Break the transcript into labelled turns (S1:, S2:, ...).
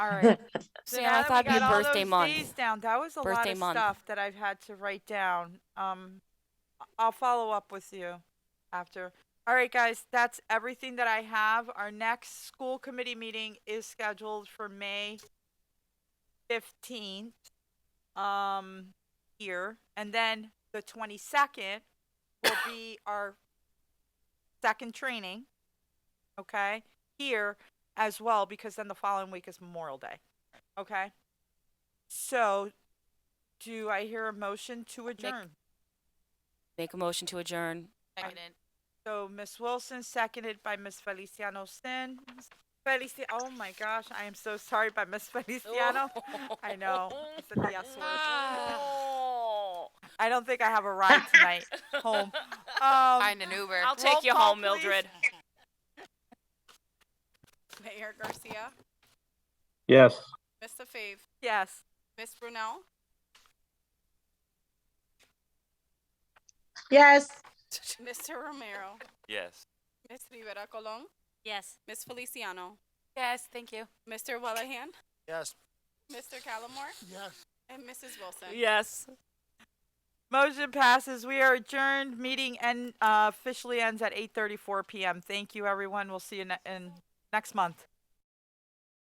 S1: All right.
S2: So
S1: See,
S2: now
S1: I
S2: that
S1: thought
S2: we
S1: it'd be
S2: got all
S1: birthday
S2: those
S1: month.
S2: days down, that was a lot
S1: Birthday
S2: of
S1: month.
S2: stuff that I've had to write down. Um, I- I'll follow up with you after. All right, guys, that's everything that I have. Our next school committee meeting is scheduled for May fifteenth, um, here, and then the twenty-second will be our second training. Okay, here as well, because then the following week is Memorial Day. Okay. So, do I hear a motion to adjourn?
S1: Make a motion to adjourn.
S3: Seconded.
S2: So Miss Wilson, seconded by Miss Feliciano Sin. Felici, oh my gosh, I am so sorry by Miss Feliciano. I know. It's
S1: Ah.
S2: a yes word.
S3: Oh.
S2: I don't think I have a ride tonight home. Um,
S3: Find an Uber.
S1: I'll
S2: Roll
S1: take you
S2: call,
S1: home,
S2: please.
S1: Mildred.
S4: Mayor Garcia,
S5: Yes.
S4: Mr. Fave,
S2: yes.
S4: Miss Brunel,
S6: Yes.
S4: Mr. Romero,
S7: Yes.
S4: Miss Rivera Colon,
S3: Yes.
S4: Miss Feliciano,
S3: Yes, thank you.
S4: Mr. Wellahan,
S8: Yes.
S4: Mr. Callamore,
S8: Yes.
S4: and Mrs. Wilson.
S1: Yes.
S2: Motion passes. We are adjourned. Meeting and uh, officially ends at 8:34 p.m. Thank you, everyone. We'll see you ne- in next month.